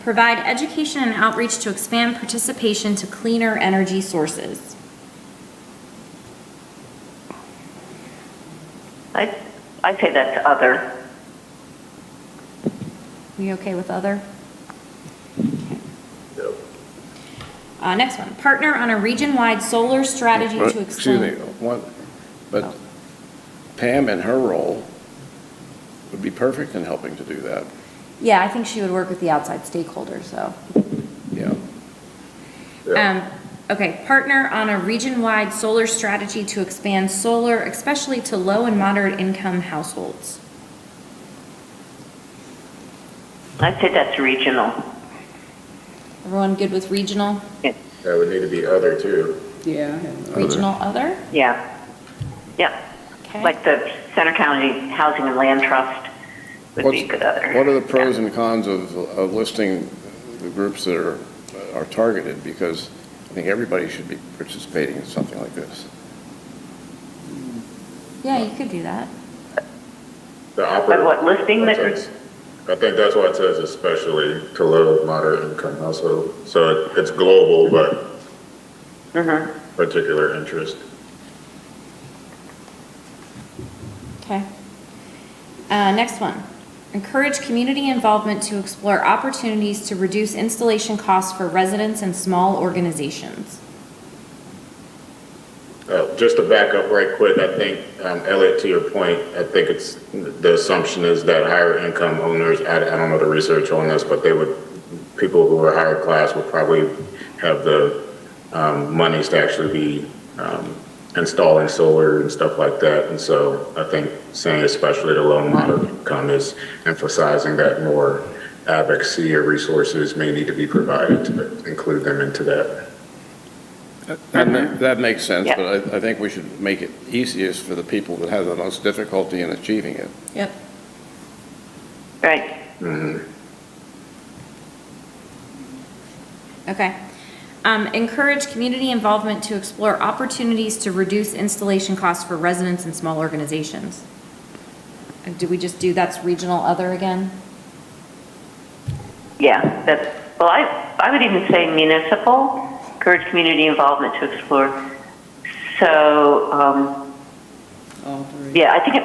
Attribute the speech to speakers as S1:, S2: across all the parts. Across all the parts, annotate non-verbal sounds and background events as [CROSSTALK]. S1: Provide education and outreach to expand participation to cleaner energy sources.
S2: I, I say that's other.
S1: We okay with other?
S3: Yep.
S1: Uh, next one, partner on a region-wide solar strategy
S3: But,
S1: to Oh.
S3: Excuse me,
S1: expand.
S3: one, but Pam and her role would be perfect in helping to do that,
S1: Yeah, I think she would work with the outside stakeholders, so.
S3: yeah.
S1: Um, okay, partner on a region-wide solar strategy to expand solar, especially to low and moderate income households.
S2: I say that's regional.
S1: Everyone good with regional,
S4: That would need to be other too.
S5: Yeah.
S1: regional other?
S2: Yeah. Yeah,
S1: Okay.
S2: like the Center County Housing and Land Trust would be a
S3: What's-
S2: good other.
S3: What are the pros and cons of, of listing the groups that are, are targeted? Because I think everybody should be participating in something like this.
S1: Yeah, you could do that.
S4: The operative.
S2: what listing that-
S4: I think that's why it says especially to low, moderate income household. So it- it's global, but
S2: Mhm.
S4: particular interest.
S1: Okay. Uh, next one. Encourage community involvement to explore opportunities to reduce installation costs for residents and small organizations.
S4: Uh, Just to back up right quick, I think, um, Elliot, to your point, I think it's, the assumption is that higher income owners, I I don't know the research on this, but they would, people who are higher class would probably have the um, monies to actually be um, installing solar and stuff like that. And so I think saying especially the low and moderate income is emphasizing that more advocacy or resources may need to be provided to include them into that.
S3: That ma- that makes sense,
S2: Yeah.
S3: but I, I think we should make it easiest for the people that have the most difficulty in achieving it.
S1: Yep.
S2: Right,
S4: Mm-hmm.
S1: Okay. Um, encourage community involvement to explore opportunities to reduce installation costs for residents and small organizations. And did we just do that's regional other again?
S2: yeah, that's, well, I, I would even say municipal, encourage community involvement to explore. So, um,
S5: All three.
S2: yeah, I think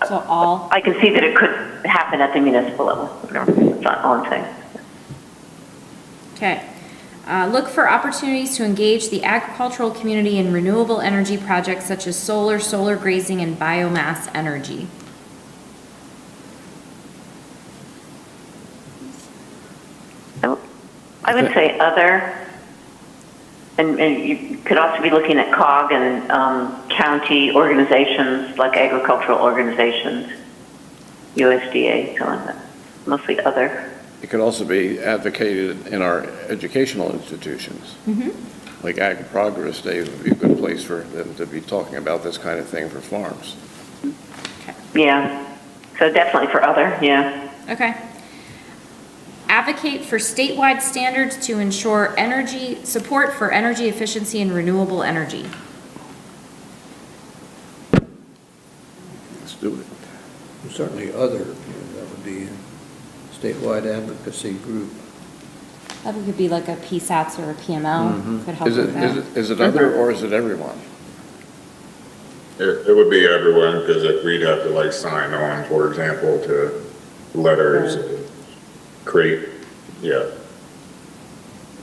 S2: it,
S1: So all,
S2: I can see that it could happen at the municipal level. That's not all I'm saying.
S1: okay. Uh, look for opportunities to engage the agricultural community in renewable energy projects such as solar, solar grazing, and biomass energy.
S2: Oh, I would say other, and, and you could also be looking at COG and um, county organizations, like agricultural organizations, USDA, so on, mostly other.
S3: It could also be advocated in our educational institutions.
S1: Mm-hmm.
S3: Like Ag Progress Day would be a good place for them to be talking about this kind of thing for farms.
S2: Yeah, so definitely for other, yeah.
S1: Okay. Advocate for statewide standards to ensure energy, support for energy efficiency and renewable energy.
S3: Let's do it.
S6: Certainly other, you know, that would be a statewide advocacy group.
S1: That could be like a PSATs or a PML, could help
S3: Mm-hmm. Is it,
S1: with
S3: is
S1: that.
S3: it, is it other or is it everyone?
S4: It, it would be everyone, because if we'd have to like sign on, for example, to letters, and create, yeah.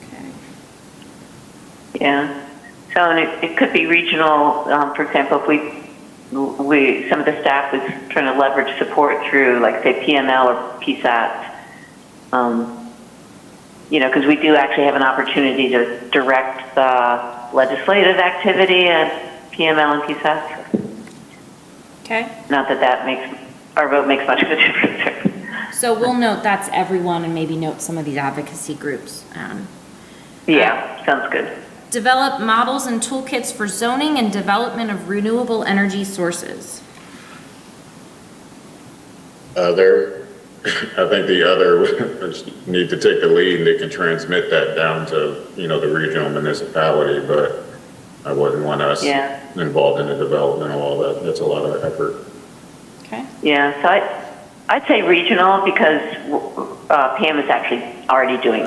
S1: Okay.
S2: Yeah. So, and it, it could be regional, um, for example, if we, we, some of the staff was trying to leverage support through, like, say, PML or PSAT. Um, you know, because we do actually have an opportunity to direct the legislative activity at PML and PSAT.
S1: Okay,
S2: Not that that makes, our vote makes much of a [LAUGHS] difference.
S1: so we'll note that's everyone and maybe note some of these advocacy groups. Um,
S2: Yeah, sounds good.
S1: Develop models and toolkits for zoning and development of renewable energy sources.
S4: Other, [LAUGHS] I think the other, [LAUGHS] would need to take the lead, and they can transmit that down to, you know, the regional municipality, but I wouldn't want us
S2: Yeah.
S4: involved in the development of all that, that's a lot of effort.
S1: Okay,
S2: Yeah, so I, I'd say regional because uh, Pam is actually already doing